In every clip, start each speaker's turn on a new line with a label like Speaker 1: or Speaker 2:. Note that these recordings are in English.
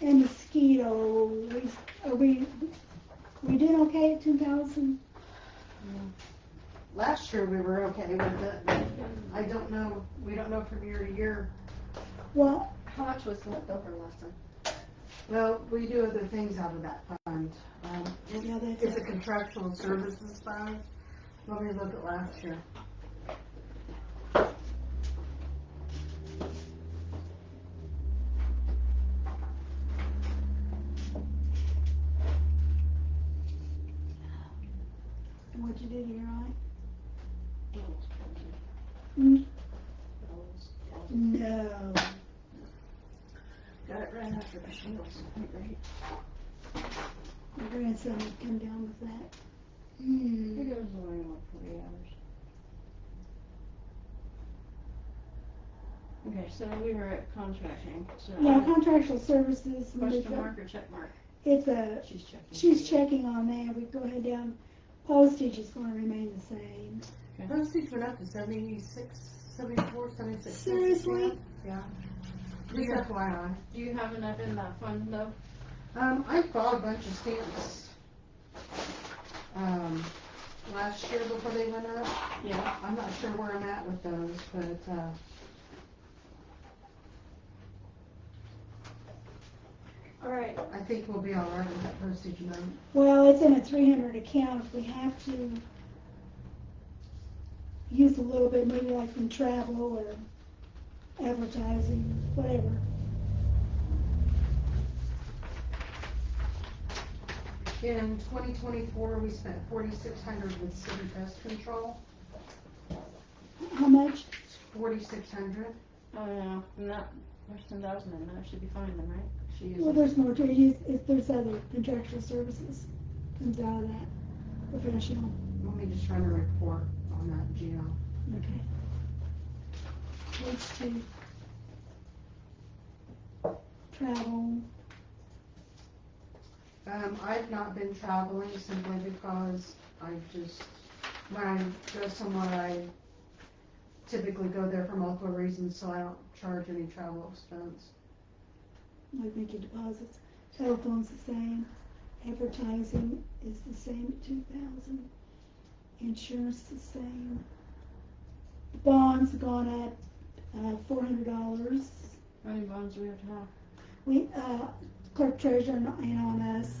Speaker 1: and mosquito, we, are we, we did okay at two thousand?
Speaker 2: Last year we were okay with it. I don't know, we don't know from year to year.
Speaker 1: Well,
Speaker 3: How much was left over last time?
Speaker 2: Well, we do other things out of that fund. Um,
Speaker 3: Yeah, that's
Speaker 2: It's a contractual services fund. Let me look at last year.
Speaker 1: what you did here, right?
Speaker 3: Mm-hmm.
Speaker 1: Mm. No,
Speaker 3: Got it right after the shingles.
Speaker 1: my grandson would come down with that. Hmm,
Speaker 3: goes away in like forty hours. Okay, so we were at contracting, so.
Speaker 1: well, contractual services,
Speaker 3: Question mark or check mark?
Speaker 1: it's a,
Speaker 3: She's checking.
Speaker 1: she's checking on that, we go ahead down, postage is gonna remain the same.
Speaker 2: Postage went up to seventy-six, seventy-four, seventy-six.
Speaker 1: Seriously?
Speaker 2: Yeah. Just
Speaker 3: Yeah.
Speaker 2: FYI.
Speaker 3: Do you have enough in that fund though?
Speaker 2: Um, I bought a bunch of stamps, um, last year before they went up.
Speaker 3: Yeah.
Speaker 2: I'm not sure where I'm at with those, but, uh,
Speaker 3: All right,
Speaker 2: I think we'll be all right with that postage note.
Speaker 1: Well, it's in a three hundred account, if we have to use a little bit, maybe like from travel or advertising, whatever.
Speaker 2: In twenty twenty-four, we spent forty-six hundred with city pest control,
Speaker 1: How much?
Speaker 2: forty-six hundred.
Speaker 3: oh no, not, there's ten thousand in there, should be fine then, right?
Speaker 2: She
Speaker 1: Well,
Speaker 2: uses,
Speaker 1: there's more to it, Yes, if there's other contractual services comes out of that, professional,
Speaker 2: let me just run a report on that, Gino.
Speaker 1: okay. Let's see. Travel,
Speaker 2: Um, I've not been traveling simply because I just, when I go somewhere, I typically go there for multiple reasons, so I don't charge any travel expense.
Speaker 1: we make your deposits, telephone's the same, advertising is the same at two thousand, insurance the same. Bonds gone up, uh, four hundred dollars,
Speaker 3: How many bonds do we have to have?
Speaker 1: we, uh, clerk treasurer and on us.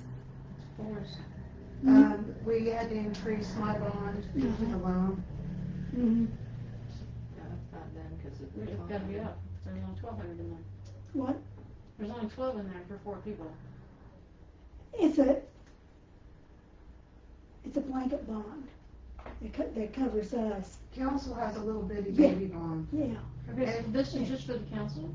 Speaker 3: Fours.
Speaker 1: Mm-hmm.
Speaker 2: Um, we had to increase my bond due to the loan.
Speaker 1: Mhm.
Speaker 3: It's gotta be up, there's only twelve hundred in there.
Speaker 1: What?
Speaker 3: There's only twelve in there for four people.
Speaker 1: It's a, it's a blanket bond that co- that covers us,
Speaker 2: Council has a little bitty baby bond.
Speaker 1: yeah.
Speaker 3: Okay, so this is just for the council?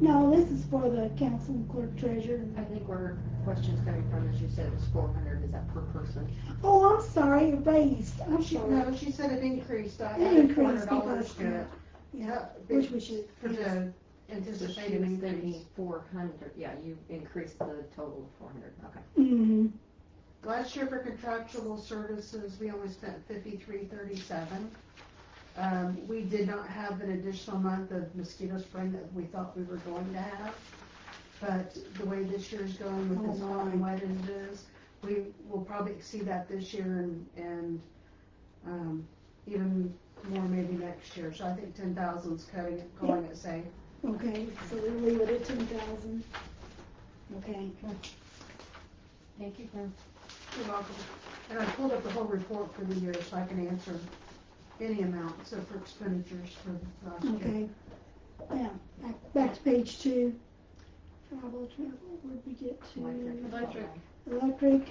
Speaker 1: No, this is for the council and clerk treasurer.
Speaker 4: I think where question's coming from is you said it was four hundred, is that per person?
Speaker 1: Oh, I'm sorry, it raised, I'm
Speaker 2: She,
Speaker 1: sorry.
Speaker 2: no, she said it increased, I
Speaker 1: It
Speaker 2: added four
Speaker 1: increased
Speaker 2: hundred dollars
Speaker 1: because-
Speaker 2: to it.
Speaker 1: Yeah,
Speaker 2: Yeah,
Speaker 1: which we should,
Speaker 2: For
Speaker 1: yes.
Speaker 2: the
Speaker 4: So she
Speaker 2: anticipated
Speaker 4: was
Speaker 2: increase.
Speaker 4: thinking four hundred, yeah, you increased the total of four hundred, okay.
Speaker 1: Mm-hmm,
Speaker 2: Last year for contractual services, we only spent fifty-three thirty-seven. Um, we did not have an additional month of mosquito spraying that we thought we were going to have. But the way this year's going with this
Speaker 1: Oh,
Speaker 2: hot
Speaker 1: my.
Speaker 2: and wet as it is, we will probably exceed that this year and, and, um, even more maybe next year. So I think ten thousand's cutting it, calling it safe.
Speaker 1: okay, so we'll leave it at ten thousand. Okay,
Speaker 3: Thank you, Kim.
Speaker 2: You're welcome. And I pulled up the whole report for the year so I can answer any amount, so for expenditures for last year.
Speaker 1: okay. Now, back, back to page two. Travel, travel, where'd we get to?
Speaker 3: Electric.
Speaker 1: Electric.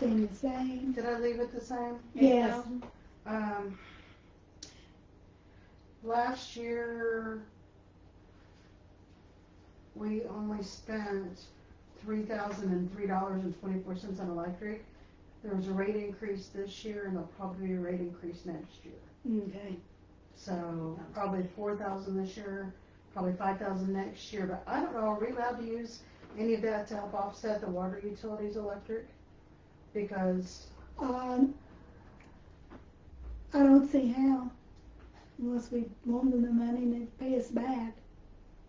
Speaker 1: Same, the same.
Speaker 2: Did I leave it the same?
Speaker 1: Yes.
Speaker 3: 8,000?
Speaker 2: Um, last year, we only spent three thousand and three dollars and twenty-four cents on electric. There was a rate increase this year and there'll probably be a rate increase next year.
Speaker 1: Okay.
Speaker 2: So probably four thousand this year, probably five thousand next year, but I don't know, are we allowed to use any of that to help offset the water utilities electric? Because,
Speaker 1: Um, I don't see how, unless we loan them the money and they pay us back.